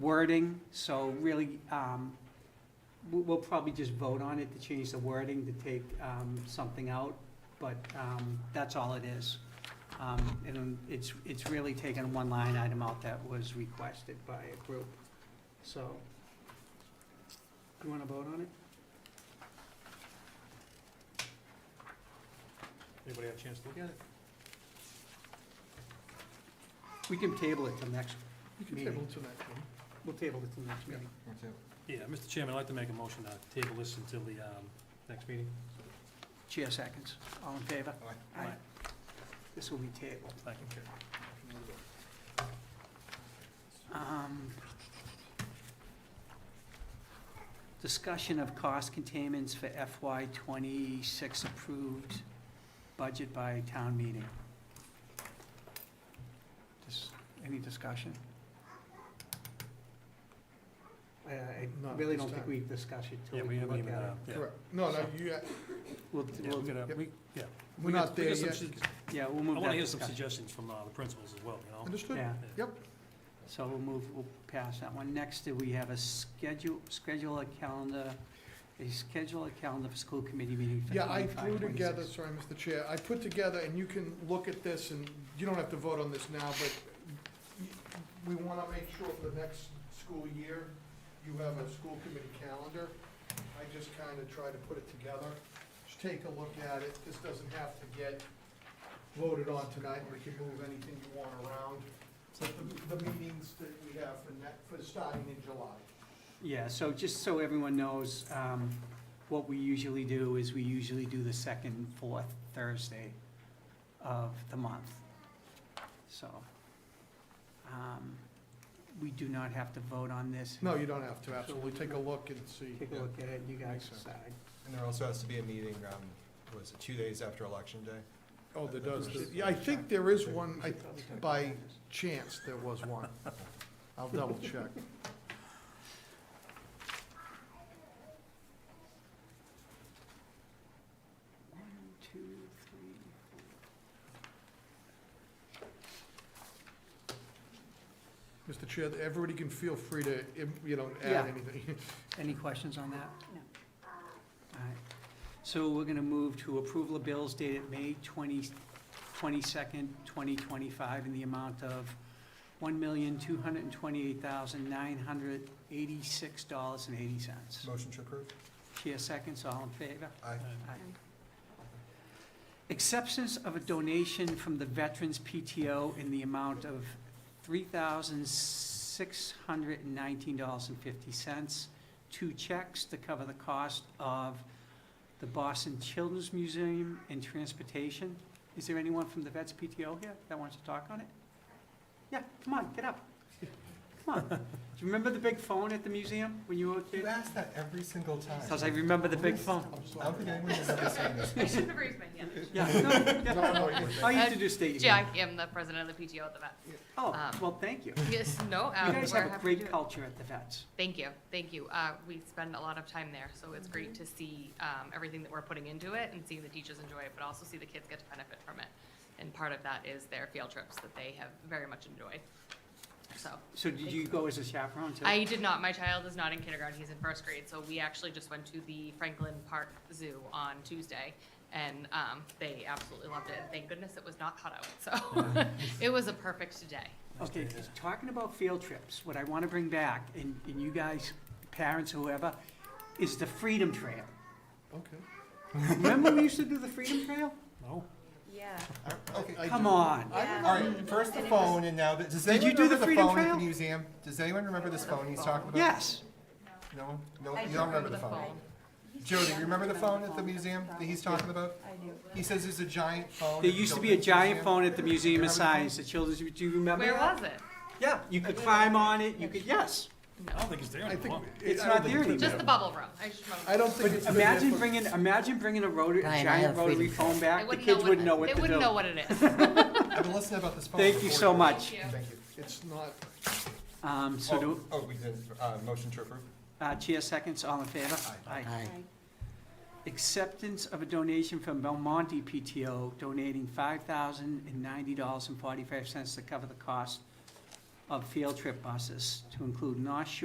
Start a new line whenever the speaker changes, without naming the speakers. wording, so really, um, we- we'll probably just vote on it to change the wording, to take um, something out, but um, that's all it is. Um, And it's, it's really taken one line item out that was requested by a group, so. You want to vote on it?
Anybody have a chance to look at it?
We can table it till next,
You
can table
to that,
we'll table it till next meeting.
Yeah, Mr. Chairman, I'd like to make a motion to table this until the um, next meeting.
Chair seconds. All in favor?
Aye.
This will be tabled.
Thank you.
Um, Discussion of cost containments for FY twenty-six approved budget by town meeting. Just, any discussion? I- I
Not at
really
this
don't think
time.
we discuss it
Yeah,
till
we
we
haven't
look
even,
at
uh,
it.
yeah.
Correct. No, no, you,
We'll,
Yeah,
we'll-
we're gonna,
Yep.
we, yeah.
we're
We got-
not
we
there
got some
yet.
sug-
yeah, we'll
I
move that discussion.
want to hear some suggestions from uh, the principals as well, you know?
Understood?
Yeah.
Yep.
So we'll move, we'll pass that one. Next, do we have a schedule, schedule a calendar, a schedule a calendar for school committee meeting for
Yeah, I
25,
threw
26.
together, sorry, Mr. Chair, I put together, and you can look at this, and you don't have to vote on this now, but we want to make sure for the next school year, you have a school committee calendar. I just kind of tried to put it together. Just take a look at it. This doesn't have to get voted on tonight. We can move anything you want around. But the, the meetings that we have for net, for starting in July.
Yeah, so just so everyone knows, um, what we usually do is we usually do the second, fourth Thursday of the month. So, um, we do not have to vote on this.
No, you don't have to, absolutely. Take a look and see.
Take a look at it, you guys
Makes sense.
decide.
And there also has to be a meeting, um, was it two days after election day?
Oh, there does, yeah, I think there is one, I, by chance, there was one. I'll double check.
One, two, three, four.
Mr. Chair, everybody can feel free to, im- you know,
Yeah.
add anything.
Any questions on that?
No.
All right. So we're going to move to approval of bills dated May 20 22nd, 2025, in the amount of $1,228,986.80.
Motion to approve?
Chair seconds, all in favor?
Aye.
Aye. Acceptance of a donation from the Veterans PTO in the amount of $3,619.50. Two checks to cover the cost of the Boston Children's Museum and transportation. Is there anyone from the Vets PTO here that wants to talk on it? Yeah, come on, get up. Come on. Do you remember the big phone at the museum when you were a
You
kid?
ask that every single time.
Because I remember the big phone.
I'm
I don't
sorry.
think anyone has ever seen this.
I shouldn't have raised my hand.
Yeah, no,
No,
yeah.
no, you-
I
Uh,
used to do state. exam.
Jack, I'm the president of the PTO at the vet.
Oh,
Um,
well, thank you. You
Yes, no, um,
guys
we're
have a
happy to do
great
it.
culture at the vets.
Thank you, thank you. Uh, we spend a lot of time there, so it's great to see, um, everything that we're putting into it and seeing the teachers enjoy it, but also see the kids get to benefit from it. And part of that is their field trips that they have very much enjoyed. So,
So did you go as a chaperone too?
I did not, my child is not in kindergarten, he's in first grade, so we actually just went to the Franklin Park Zoo on Tuesday, and, um, they absolutely loved it, thank goodness it was not hot out, so, it was a perfect day.
Okay, talking about field trips, what I want to bring back, and, and you guys, parents, whoever, is the Freedom Trail.
Okay.
Remember we used to do the Freedom Trail?
No?
Yeah.
Okay,
I
Come
do-
on.
I
Yeah.
all right, first the
And it was-
phone and now, the- does
Did you
anyone
do the
remember the
Freedom
phone at
Trail?
the museum? Does anyone remember this phone he's talking about?
Yes,
No one? No,
I
you
do
don't remember the phone? Jody, you remember the phone at the museum that he's talking about?
I do.
He says there's a giant phone.
there
at the
used to be a
Children's
giant
Museum.
phone at the Museum
Remember
of
the
Science, the children's, do you remember
Where
that?
was it?
Yeah, you could climb on it, you could, yes.
I don't think it's there
I think.
anymore.
it-
It's
I don't
not
think
there
it's been
anymore.
Just the bubble room. I just remember.
I don't think it's. been there
Imagine
for-
bringing, imagine bringing a rotary,
Brian, I
giant
have Freedom
rotary
Trail.
phone
They
back, the
wouldn't
kids wouldn't know
it-
what to do.
They wouldn't know what it is.
I've been listening about this phone.
Thank you
for
so
40
much.
Yeah.
years. Thank you.
It's not,
Um, so
Oh,
do,
oh, we did, uh, motion to approve?
uh, chair seconds, all in favor? Aye.
Aye.
Acceptance of a donation from Belmonte PTO donating five thousand and ninety dollars and forty-five cents to cover the cost of field trip buses to include North Shore